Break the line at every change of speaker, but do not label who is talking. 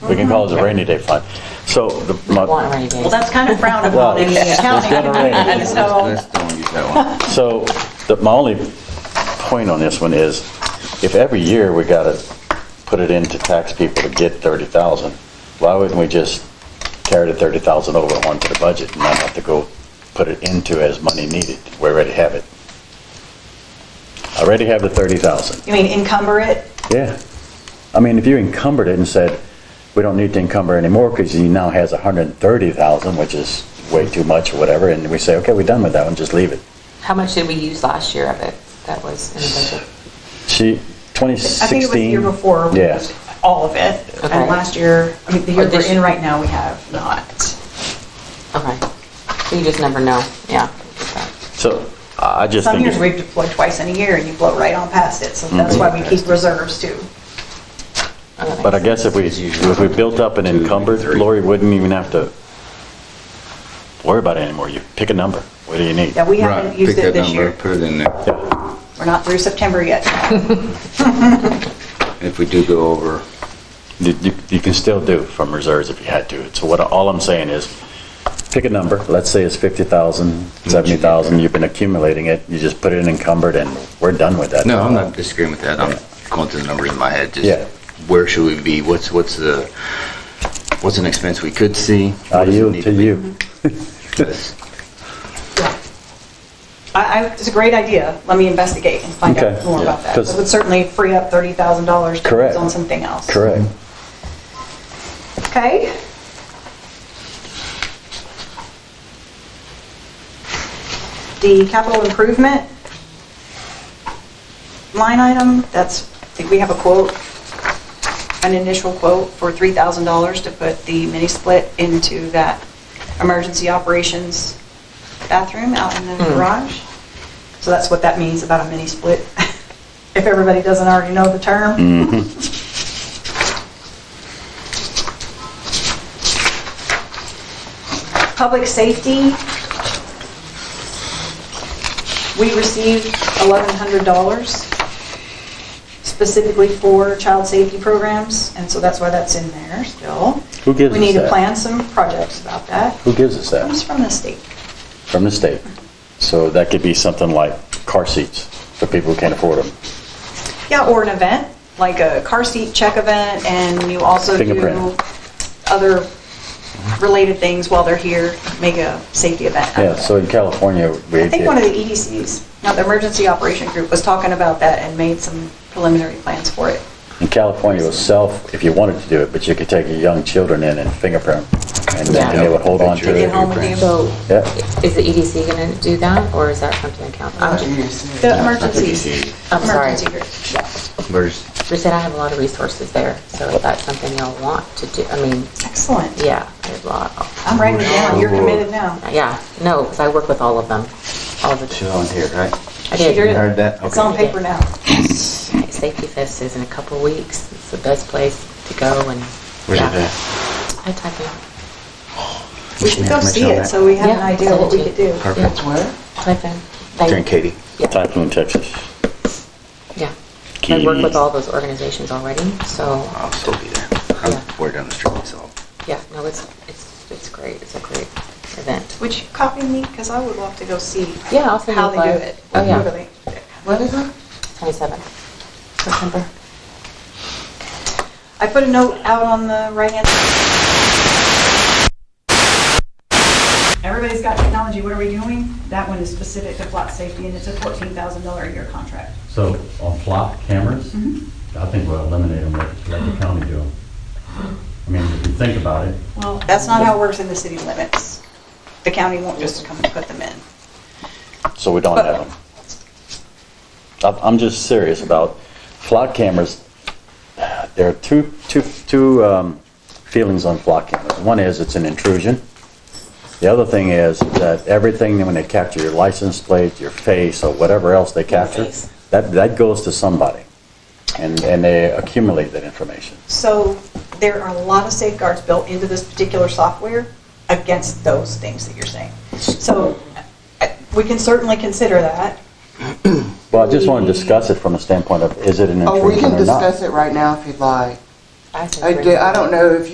We can call it a rainy day fund. So the,
Want
my-
rainy days.
Well, that's kind of frowned upon in the
Well,
county.
it's gonna rain.
And so,
Let's don't use that one.
so the- my only point on this one is, if every year we gotta put it into tax people to get 30,000, why wouldn't we just carry the 30,000 over onto the budget and not have to go put it into as money needed? We already have it. I already have the 30,000.
you mean encumber it?
Yeah. I mean, if you encumbered it and said, we don't need to encumber anymore because he now has 130,000, which is way too much or whatever, and we say, okay, we're done with that one, just leave it.
How much did we use last year of it that was in the budget?
She,
I think it was the
2016.
year before. we
Yeah.
used All of it.
Okay.
And last year, I mean, the
Or
year we're
this-
in right now, we have not.
Okay. You just never know, yeah.
So I I just
Some
think, Mm-hmm.
years we've
it's-
deployed twice in a year and you blow right on past it. So that's why we keep reserves too.
Okay.
but I guess if we, if we built up an encumbered, Lori wouldn't even have to worry about it anymore. You pick a number. What do you need?
Yeah, we
Right,
haven't
pick
used it
that
this
number,
year.
put it in there.
Yeah.
We're not through September yet.
If we do go over,
You, you- you can still do from reserves if you had to. So what, all I'm saying is, pick a number, let's say it's 50,000, 70,000, you've been accumulating it, you just put it in encumbered and we're done with that.
no, I'm not disagreeing with that, I'm going through the number in my head,
Yeah.
just where should we be, what's, what's the, what's an expense we could see?
I
What does it
yield
need
to
be?
Uh, you.
Yes.
Yeah. I, I, it's a great idea. Let me investigate and find
Okay.
out more
Yeah.
about that.
'Cause-
It would certainly free up $30,000 to
Correct.
use on something else.
Correct.
Okay? The capital improvement line item, that's, I think we have a quote, an initial quote for $3,000 to put the mini split into that emergency operations bathroom out in the
Hmm.
garage. So that's what that means about a mini split, if everybody doesn't already know the term.
Mm-hmm.
Public safety, we received $1,100 specifically for child safety programs, and so that's why that's in there still.
Who gives
We
us
need to
that?
plan some projects about that.
Who gives us
Comes
that?
from the state.
From the state. So that could be something like car seats for people who can't afford them.
Yeah, or an event, like a car seat check event, and you also do
Fingerprint.
other related things while they're here, make a safety event. out of
Yeah,
it.
so in California, we.
I think one of the E EDCs, now the Emergency Operation Group, was talking about that and made some preliminary plans for it.
In California itself, if you wanted to do it, but you could take your young children in and fingerprint, and then they would hold on to
Yeah.
Get
it.
home with you.
So
Yeah.
is the E EDC going to do that or is that something the council? I'm just-
The emergencies.
I'm sorry.
Emergency group, yeah.
Where's,
We said I have a lot of resources there, so if that's something y'all want to do, I mean,
Excellent.
yeah, there's a lot.
I'm writing it down. You're committed now.
Yeah, no, because I work with all of them, all the.
she's on here, right?
I
She
did.
did it.
You heard that?
It's
Okay.
on paper now.
Safety Fest is in a couple weeks. It's the best place to go and.
Where's it
yeah.
at?
I type in.
We should go see
Information on
it
that.
so we have an
Yeah.
idea what we could do.
Perfect.
Yeah. Type in. They-
During Katie.
Yeah,
Typhoon, Texas.
yeah. I work with
Katie.
all those organizations already, so,
I'll still be there.
Yeah.
I'm, we're down the street, so.
yeah, no, it's, it's, it's great. It's a great event.
Would you copy me? Because I would love to go see
Yeah, I'll send you
how
a
they do
flyer.
it.
Oh, yeah.
Really.
What is it? Twenty-seven. September.
I put a note out on the right-hand. Everybody's got technology. What are we doing? That one is specific to plot safety and it's a $14,000 a year contract.
So on plot cameras,
Mhm.
I think we'll eliminate them, let let the county do them. I mean, if you think about it,
Well, that's not how it works in the city limits. The county won't just come and put them in.
So we don't have them. I'm- I'm just serious about flock cameras. There are two, two, two um, feelings on flock cameras. One is it's an intrusion. The other thing is that everything, when they capture your license plate, your face, or whatever else they capture,
face.
that, that goes to somebody. And, and they accumulate that information.
So there are a lot of safeguards built into this particular software against those things that you're saying. So uh, we can certainly consider that.
Well, I just want to discuss it from the standpoint of, is it an
Oh, we
intrusion
can
or not?
discuss it right now if you'd like.
I said
I
three.
do- I don't know if you.